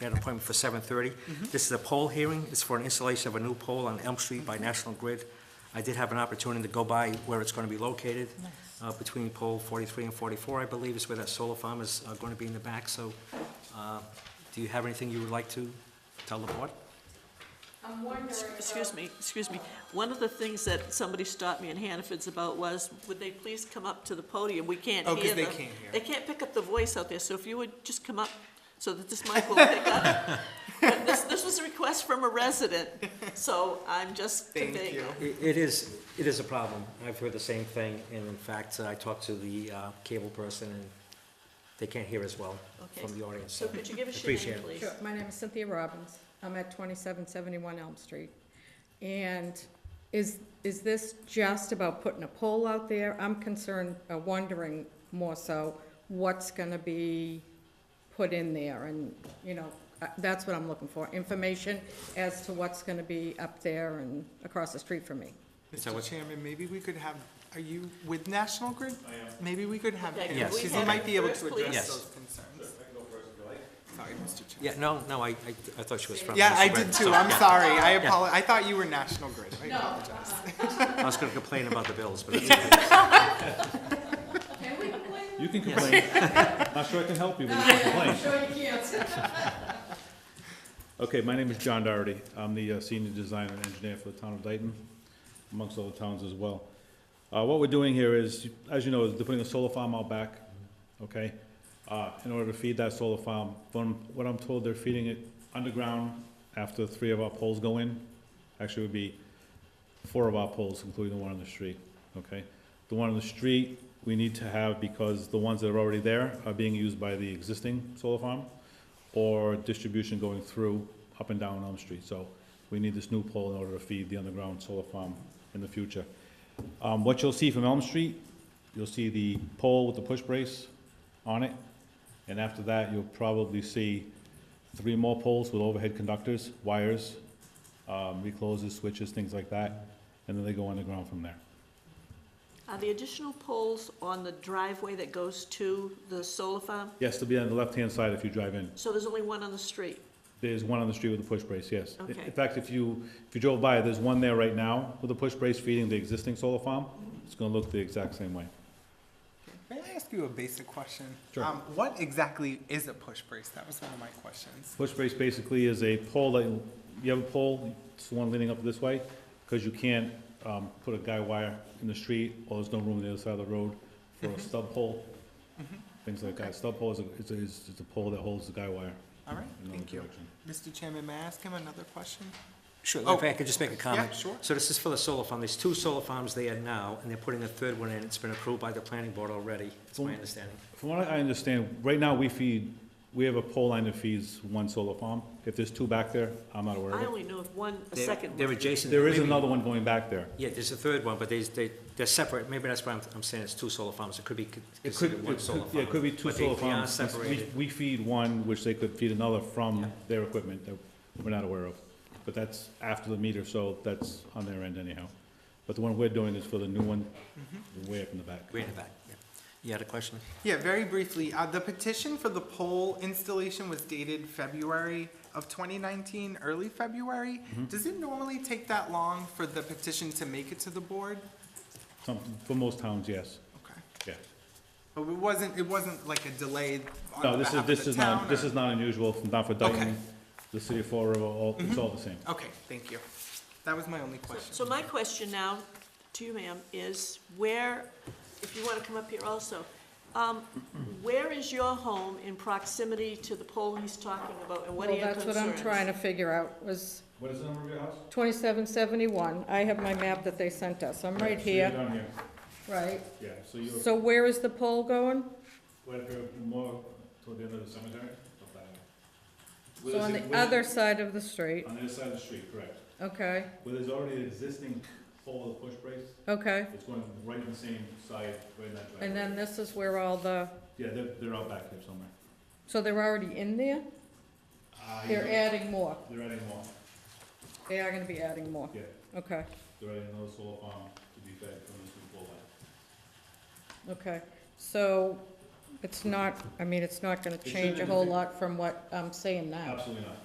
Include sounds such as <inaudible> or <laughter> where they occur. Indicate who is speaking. Speaker 1: We had an appointment for seven thirty. This is a poll hearing. It's for an installation of a new pole on Elm Street by National Grid. I did have an opportunity to go by where it's gonna be located. Uh, between pole forty-three and forty-four, I believe, is where that solar farm is, uh, gonna be in the back, so, uh, do you have anything you would like to tell the board?
Speaker 2: I'm wondering,
Speaker 3: Excuse
Speaker 2: uh,
Speaker 3: me, excuse me. One of the things that somebody stopped me in Hannaford's about was, would they please come up to the podium? We can't
Speaker 4: Oh,
Speaker 3: hear
Speaker 4: 'cause
Speaker 3: them.
Speaker 4: they can't hear.
Speaker 3: They can't pick up the voice out there, so if you would just come up so that this mic will pick
Speaker 4: <laughs>
Speaker 3: up. But This, this was a request from a resident, so I'm just
Speaker 4: Thank
Speaker 3: conveying
Speaker 4: you.
Speaker 3: it.
Speaker 1: It it is, it is a problem. I've heard the same thing, and in fact, I talked to the uh, cable person, and they can't hear as well
Speaker 3: Okay.
Speaker 1: from the audience.
Speaker 3: So could you give us your
Speaker 1: Appreciate
Speaker 3: name,
Speaker 1: it.
Speaker 3: please?
Speaker 5: Sure, my name is Cynthia Robbins, I'm at twenty-seven seventy-one Elm Street. And is, is this just about putting a pole out there? I'm concerned, uh, wondering more so, what's gonna be put in there, and, you know, uh, that's what I'm looking for, information as to what's gonna be up there and across the street from me.
Speaker 1: So
Speaker 4: Mr.
Speaker 1: it's-
Speaker 4: Chairman, maybe we could have, are you with National Grid? Maybe we could have
Speaker 3: Yeah,
Speaker 4: him,
Speaker 1: Yes.
Speaker 4: because
Speaker 1: we
Speaker 4: he
Speaker 3: have
Speaker 4: might be able
Speaker 3: first,
Speaker 4: to
Speaker 1: please?
Speaker 4: address those concerns. Sorry, Mr.
Speaker 1: Yeah,
Speaker 4: Chairman.
Speaker 1: no, no, I, I I thought she was from.
Speaker 4: Yeah, I
Speaker 1: Mr.
Speaker 4: did
Speaker 1: Brett,
Speaker 4: too,
Speaker 1: so,
Speaker 4: I'm
Speaker 1: yeah.
Speaker 4: sorry, I apologize, I thought you were National Grid, I
Speaker 2: No.
Speaker 4: apologize.
Speaker 1: I was gonna complain about the bills, but <laughs> it's okay.
Speaker 2: can we play?
Speaker 6: You can complain. Not sure I can help you with your complaint.
Speaker 2: Sure you can.
Speaker 6: Okay, my name is John Doherty. I'm the uh, senior designer and engineer for the town of Dayton, amongst other towns as well. Uh, What we're doing here is, as you know, is they're putting a solar farm out back, okay? Uh, In order to feed that solar farm, from what I'm told, they're feeding it underground after three of our poles go in. Actually, it would be four of our poles, including the one on the street, okay? The one on the street, we need to have because the ones that are already there are being used by the existing solar farm or distribution going through up and down Elm Street. So we need this new pole in order to feed the underground solar farm in the future. Um, what you'll see from Elm Street, you'll see the pole with the push brace on it. And after that, you'll probably see three more poles with overhead conductors, wires, um, recloses, switches, things like that. And then they go underground from there.
Speaker 3: Are the additional poles on the driveway that goes to the solar farm?
Speaker 6: Yes, they'll be on the left-hand side if you drive in.
Speaker 3: So there's only one on the street?
Speaker 6: There's one on the street with a push brace, yes. In-
Speaker 3: Okay.
Speaker 6: In fact, if you, if you drove by, there's one there right now with a push brace feeding the existing solar farm. It's gonna look the exact same way.
Speaker 4: May I ask you a basic question?
Speaker 6: Sure.
Speaker 4: Um, What exactly is a push brace? That was one of my questions.
Speaker 6: Push brace basically is a pole that, you have a pole, it's the one leaning up this way, because you can't, um, put a guy wire in the street, or there's no room on the other side of the road for a stub pole. Things like that. Stub pole is, a- is, a- is is a pole that holds the guy wire
Speaker 4: All right,
Speaker 6: in another
Speaker 4: thank you.
Speaker 6: direction.
Speaker 4: Mr. Chairman, may I ask him another question?
Speaker 1: Sure,
Speaker 4: Oh.
Speaker 1: if I could just make a comment.
Speaker 4: Yeah, sure.
Speaker 1: So this is for the solar farm. There's two solar farms there now, and they're putting a third one in. It's been approved by the planning board already, It's my
Speaker 6: Mm.
Speaker 1: understanding.
Speaker 6: From what I understand, right now, we feed, we have a pole line that feeds one solar farm. If there's two back there, I'm not aware
Speaker 3: I
Speaker 6: of it.
Speaker 3: only knew of one, a
Speaker 1: They're-
Speaker 3: second
Speaker 1: They're
Speaker 3: one.
Speaker 1: adjacent.
Speaker 6: There is
Speaker 1: maybe-
Speaker 6: another one going back there.
Speaker 1: Yeah, there's a third one, but they, they, they're separate. Maybe that's why I'm, I'm saying it's two solar farms. It could be con-
Speaker 6: It could,
Speaker 1: considered
Speaker 6: it
Speaker 1: one
Speaker 6: could-
Speaker 1: solar farm.
Speaker 6: yeah, it could be two
Speaker 1: but they-
Speaker 6: solar
Speaker 1: they are
Speaker 6: farms. We- we-
Speaker 1: separated.
Speaker 6: We feed one, which they could feed another from their equipment that we're not aware of. But that's after the meter, so that's on their end anyhow. But the one we're doing is for the new one,
Speaker 4: Mm-hmm.
Speaker 6: way up in the back.
Speaker 1: Way in the back, yeah. You had a question?
Speaker 4: Yeah, very briefly, uh, the petition for the pole installation was dated February of twenty nineteen, early February.
Speaker 6: Mm-hmm.
Speaker 4: Does it normally take that long for the petition to make it to the board?
Speaker 6: Some, for most towns, yes,
Speaker 4: Okay.
Speaker 6: yeah.
Speaker 4: But it wasn't, it wasn't like a delay
Speaker 6: No,
Speaker 4: on the
Speaker 6: this is,
Speaker 4: behalf of
Speaker 6: this
Speaker 4: the
Speaker 6: is not,
Speaker 4: town?
Speaker 6: this
Speaker 4: or-
Speaker 6: is not unusual, from not for
Speaker 4: Okay. Mm-hmm.
Speaker 6: Dayton, the city of Fall River, all, it's all the same.
Speaker 4: Okay, thank you. That was my only
Speaker 3: So
Speaker 4: question.
Speaker 3: my question now to you, ma'am, is where, if you want to come up here also, um, where is your home in proximity to the pole he's talking about, and what are
Speaker 5: Well,
Speaker 3: your
Speaker 5: that's
Speaker 3: concerns?
Speaker 5: what I'm trying to figure out, was
Speaker 6: What is the number of your house?
Speaker 5: twenty-seven seventy-one, I have my map that they sent us, I'm right here,
Speaker 6: down here,
Speaker 5: right?
Speaker 6: yeah, so you're,
Speaker 5: So where is the pole going?
Speaker 6: where, more toward the end of the cemetery?
Speaker 5: So on the other side of the street,
Speaker 6: On the other side of the street, correct.
Speaker 5: okay,
Speaker 6: Where there's already an existing pole with a push brace,
Speaker 5: okay.
Speaker 6: it's going right in the same side, right in that driveway.
Speaker 5: And then this is where all the,
Speaker 6: Yeah, they're, they're out back there somewhere.
Speaker 5: so they're already in there?
Speaker 6: Uh,
Speaker 5: They're adding more,
Speaker 6: They're adding more,
Speaker 5: they are gonna be adding more,
Speaker 6: yeah,
Speaker 5: okay,
Speaker 6: they're adding another solar farm to be fed from this new pole line.
Speaker 5: okay. So It's not, I mean, it's not gonna change a whole lot from what I'm saying now. Oh.
Speaker 6: Absolutely not.